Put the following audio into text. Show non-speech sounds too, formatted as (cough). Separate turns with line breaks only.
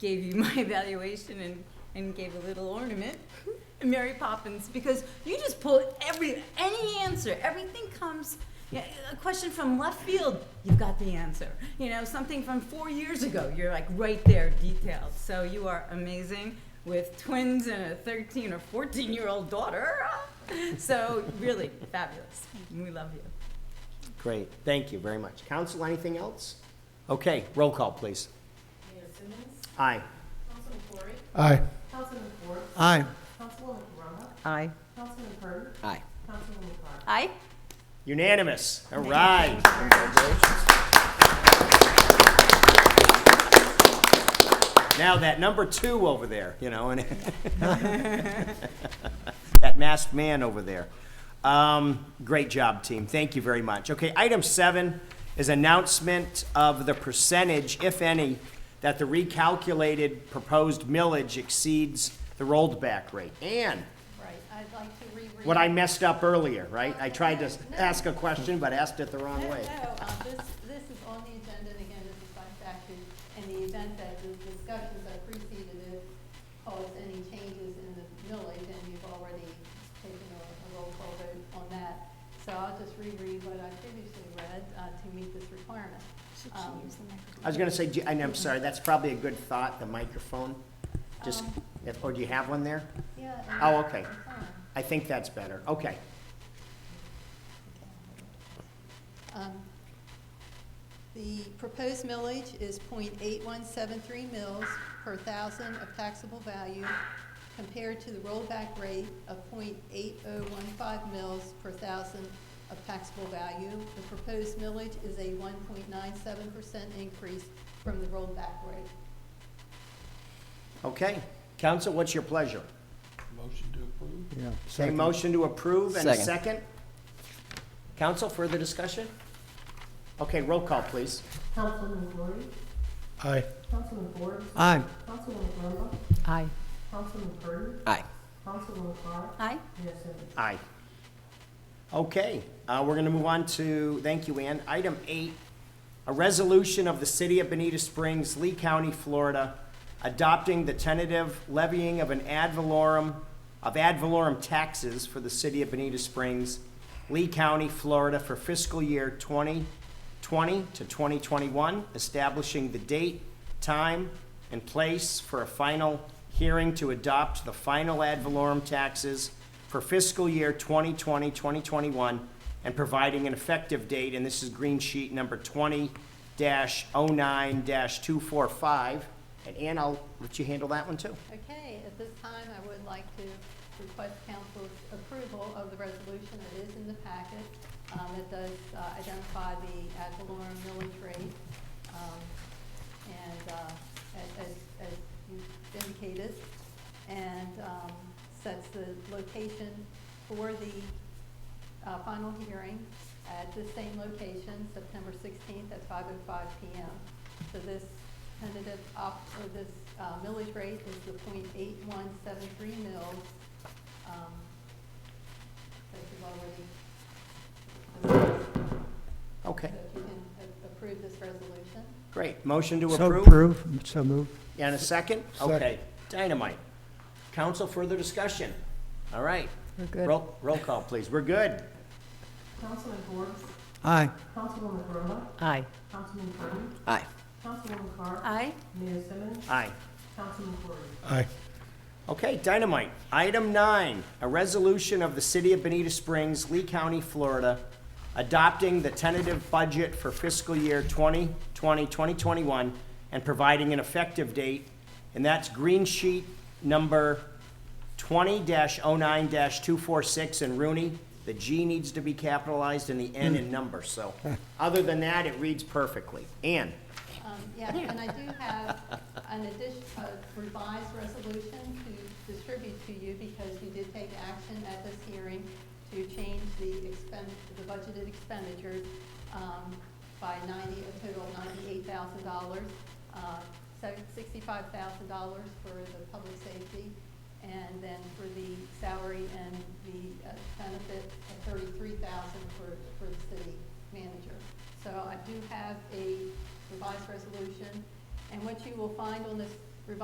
gave you my (laughs) evaluation and, and gave a little ornament, Mary Poppins, because you just pull every, any answer, everything comes, yeah, a question from left field, you've got the answer. You know, something from four years ago, you're like right there detailed. So you are amazing with twins and a 13 or 14 year old daughter. (laughs) So really fabulous. We love you.
Great, thank you very much. Council, anything else? Okay, roll call, please.
Mayor Simmons,
Aye.
Councilman Corey,
Aye.
Councilman Ford,
Aye.
Councilwoman Corona,
Aye.
Councilman Purr,
Aye.
Councilwoman Clark.
Aye.
Unanimous, all right. Now, that number two over there, you know, and (laughs) that masked man over there. Um, great job, team. Thank you very much. Okay, item seven is announcement of the percentage, if any, that the recalculated proposed millage exceeds the rolled back rate. Ann,
Right, I'd like to reread.
what I messed up earlier, right? I tried to ask a question, but asked it the wrong
No,
way.
no, um, this, this is on the agenda, and again, this is by statute, in the event that the discussions that preceded it caused any changes in the millage, and you've already taken a a roll call vote on that. So I'll just reread what I previously read uh, to meet this requirement. Um,
I was gonna say, do- and I'm sorry, that's probably a good thought, the microphone. Just,
Um.
if- or do you have one there?
Yeah. and
Oh, okay.
it's on.
I think that's better. Okay.
Um, The proposed millage is .8173 mils per thousand of taxable value compared to the rollback rate of .8015 mils per thousand of taxable value. The proposed millage is a one point nine seven percent increase from the rollback rate.
Okay. Council, what's your pleasure?
Motion to approve?
Yeah.
A
Second.
motion to approve and a
Second.
second? Council, further discussion? Okay, roll call, please.
Councilman Corey,
Aye.
Councilman Ford,
Aye.
Councilwoman Corona,
Aye.
Councilman Purr,
Aye.
Councilwoman Clark,
Aye.
Mayor Simmons.
Aye. Okay, uh, we're gonna move on to, thank you, Ann. Item eight, a resolution of the City of Benita Springs, Lee County, Florida, adopting the tentative levying of an ad valorem, of ad valorem taxes for the City of Benita Springs, Lee County, Florida for fiscal year twenty twenty to twenty twenty-one, establishing the date, time, and place for a final hearing to adopt the final ad valorem taxes for fiscal year 2020, 2021, and providing an effective date, and this is green sheet number 20-09-245. And Ann, I'll let you handle that one too.
Okay, at this time, I would like to request council's approval of the resolution that is in the packet. um, that does uh, identify the ad valorem millage rate. um, and, uh, as, as, as you indicated, and, um, sets the location for the, uh, final hearing at the same location, September sixteenth at five oh five P M. So this tentative op, or this, uh, millage rate is the point eight one seven three mils, um, that you've already. So
Okay,
if you can a- approve this resolution.
great. Motion to
So
approve?
approve, so move.
And a second?
Second.
Okay, dynamite. Council, further discussion? All right. We're good. Roll roll call, please. We're good.
Councilman Ford,
Aye.
Councilwoman Corona,
Aye.
Councilman Purr,
Aye.
Councilwoman Clark,
Aye.
Mayor Simmons,
Aye.
Councilman Corey.
Aye.
Okay, dynamite. Item nine, a resolution of the City of Benita Springs, Lee County, Florida, adopting the tentative budget for fiscal year 2020, 2021, and providing an effective date, and that's green sheet number 20-09-246 and Rooney. The G needs to be capitalized and the N in number, so, other than that, it reads perfectly. Ann?
Um, Yeah, and I do have an addition, a revised resolution to distribute to you because you did take action at this hearing to change the expend, the budgeted expenditures um, by ninety, a total of ninety-eight thousand dollars. uh, Sixty-five thousand dollars for the public safety and then for the salary and the uh, benefit of thirty-three thousand for, for the city manager. So I do have a revised resolution, and what you will find on this